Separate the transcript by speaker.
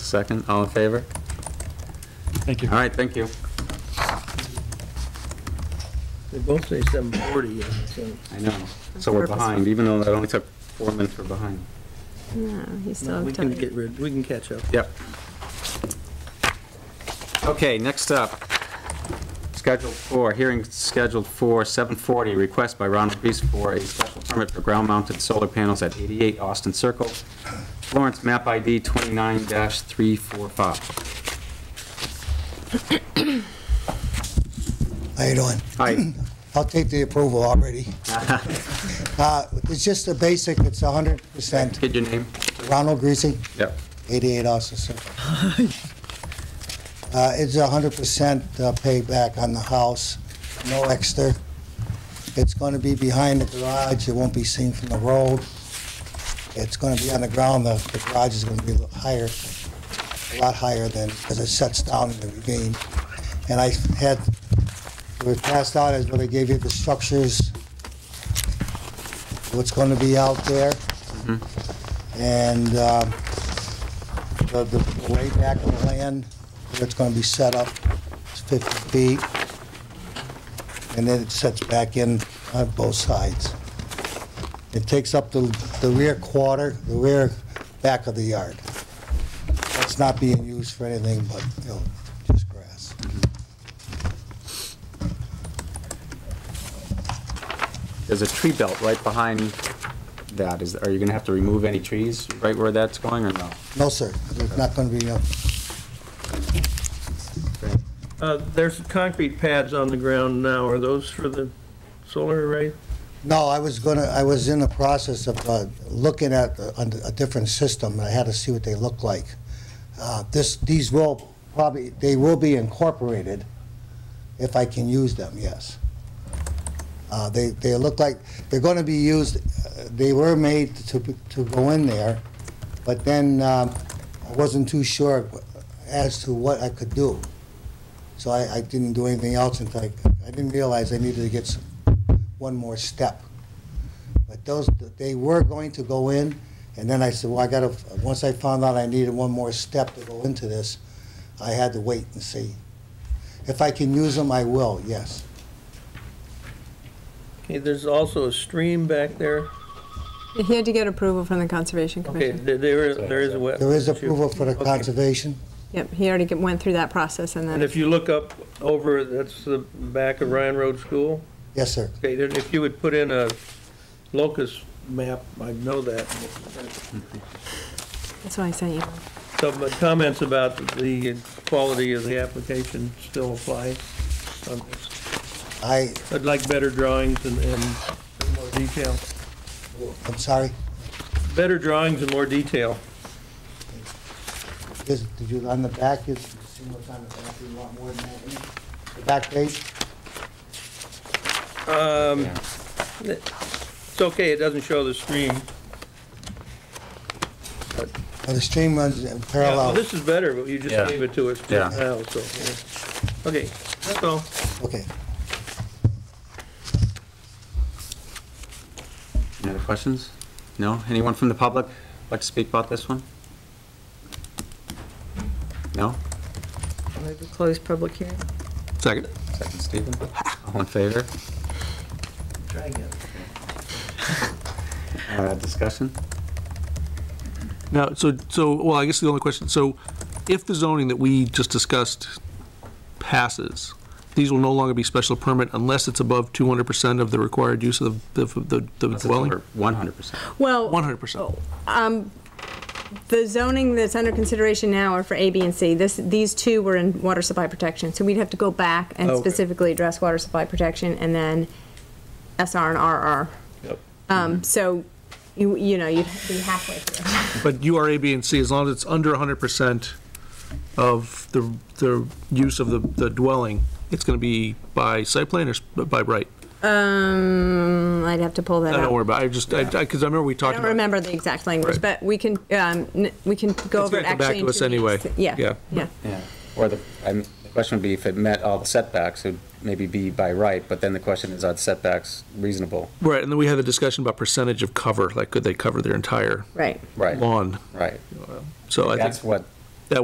Speaker 1: second, all in favor?
Speaker 2: Thank you.
Speaker 1: All right, thank you.
Speaker 3: They both say 7:40, uh, so
Speaker 1: I know, so we're behind, even though that only took four minutes, we're behind.
Speaker 4: No, you still
Speaker 3: no, we
Speaker 4: have
Speaker 3: can
Speaker 4: time.
Speaker 3: get rid, we can catch up.
Speaker 1: Yep. Okay, next up, scheduled for, hearing scheduled for 7:40, request by Ronald Reese for a special permit for ground-mounted solar panels at 88 Austin Circle, Florence, map ID 29-345.
Speaker 5: How you doing?
Speaker 1: Hi,
Speaker 5: I'll take the approval already. Uh, It's just a basic, it's 100%.
Speaker 1: get your name?
Speaker 5: Ronald Greasy,
Speaker 1: Yep.
Speaker 5: 88 Austin Circle. Uh, It's 100% uh, payback on the house, no extra. It's going to be behind the garage, it won't be seen from the road. It's going to be on the ground, the the garage is going to be a little higher, a lot higher than, because it sets down in the ravine. And I had, it was passed out as when I gave you the structures, what's going to be out there. And um, the the way back of the land, where it's going to be set up, is 50 feet. And then it sets back in on both sides. It takes up the the rear quarter, the rear back of the yard. That's not being used for anything but, you know, just grass.
Speaker 1: There's a tree belt right behind that, is, are you gonna have to remove any trees right where that's going, or no?
Speaker 5: No, sir, there's not going to be, no-
Speaker 3: Uh, There's concrete pads on the ground now, are those for the solar array?
Speaker 5: No, I was gonna, I was in the process of uh, looking at a a different system, and I had to see what they look like. Uh, This, these will probably, they will be incorporated if I can use them, yes. Uh, They, they look like, they're gonna be used, uh, they were made to, be- to go in there, but then um, I wasn't too sure as to what I could do. So I, I didn't do anything else until I, I didn't realize I needed to get some one more step. But those, they were going to go in, and then I said, well, I gotta, once I found out I needed one more step to go into this, I had to wait and see. If I can use them, I will, yes.
Speaker 3: Okay, there's also a stream back there.
Speaker 4: He had to get approval from the Conservation
Speaker 3: Okay,
Speaker 4: Commission.
Speaker 3: there there is, there is a wet.
Speaker 5: There is approval for the
Speaker 3: Okay.
Speaker 5: conservation.
Speaker 4: Yep, he already get- went through that process and
Speaker 3: And
Speaker 4: then,
Speaker 3: if you look up over, that's the back of Ryan Road School.
Speaker 5: Yes, sir.
Speaker 3: Okay, then if you would put in a locus map, I know that.
Speaker 4: that's why I sent you.
Speaker 3: Some comments about the quality of the application still apply on this.
Speaker 5: I,
Speaker 3: I'd like better drawings and, and more detail.
Speaker 5: I'm sorry,
Speaker 3: Better drawings and more detail.
Speaker 5: is, did you, on the back, is, see what's on the back, you want more than that? in it? The back page?
Speaker 3: Um,
Speaker 1: Yeah.
Speaker 3: it's okay, it doesn't show the stream.
Speaker 5: Uh, The stream runs in
Speaker 3: Well,
Speaker 5: parallel.
Speaker 3: This is better, but you
Speaker 1: Yeah.
Speaker 3: just gave it to us
Speaker 1: Yeah.
Speaker 3: now, so. yeah. Okay, that's all.
Speaker 5: Okay.
Speaker 1: Any other questions? No? Anyone from the public like to speak about this one? No?
Speaker 6: Move to close public hearing.
Speaker 1: Second. Second, Stephen. All in favor?
Speaker 3: Try again.
Speaker 1: Uh, Discussion?
Speaker 7: Now, so, so, well, I guess the only question, so if the zoning that we just discussed passes, these will no longer be special permit unless it's above 200% of the required use of the, the the dwelling?
Speaker 1: One hundred percent.
Speaker 4: Well,
Speaker 7: 100%.
Speaker 4: the zoning that's under consideration now are for A, B, and C. This, these two were in water supply protection, so we'd have to go back and
Speaker 3: Okay.
Speaker 4: specifically address water supply protection and then SR and RR.
Speaker 3: Yep. Mm-hmm.
Speaker 4: Um, so, you, you know, you'd be halfway through.
Speaker 7: But you are A, B, and C, as long as it's under 100% of the, the use of the, the dwelling, it's going to be by site plan or s- by right?
Speaker 4: Um, I'd have to pull that
Speaker 7: I
Speaker 4: out.
Speaker 7: don't worry about it, I just, I, because I remember we
Speaker 4: I
Speaker 7: talked
Speaker 4: don't
Speaker 7: about.
Speaker 4: remember the exact language,
Speaker 7: Right.
Speaker 4: but we can, um, n- we can go
Speaker 7: It's
Speaker 4: over
Speaker 7: gonna
Speaker 4: it
Speaker 7: come back
Speaker 4: actually.
Speaker 7: to
Speaker 4: in
Speaker 7: us
Speaker 4: two
Speaker 7: anyway.
Speaker 4: weeks. Yeah,
Speaker 7: Yeah.
Speaker 4: yeah.
Speaker 1: Yeah. Or the, I mean, the question would be if it met all the setbacks, it'd maybe be by right, but then the question is, are the setbacks reasonable?
Speaker 7: Right, and then we had the discussion about percentage of cover, like could they cover their entire
Speaker 4: Right.
Speaker 1: Right,
Speaker 7: lawn?
Speaker 1: right.
Speaker 7: So I think.
Speaker 1: That's what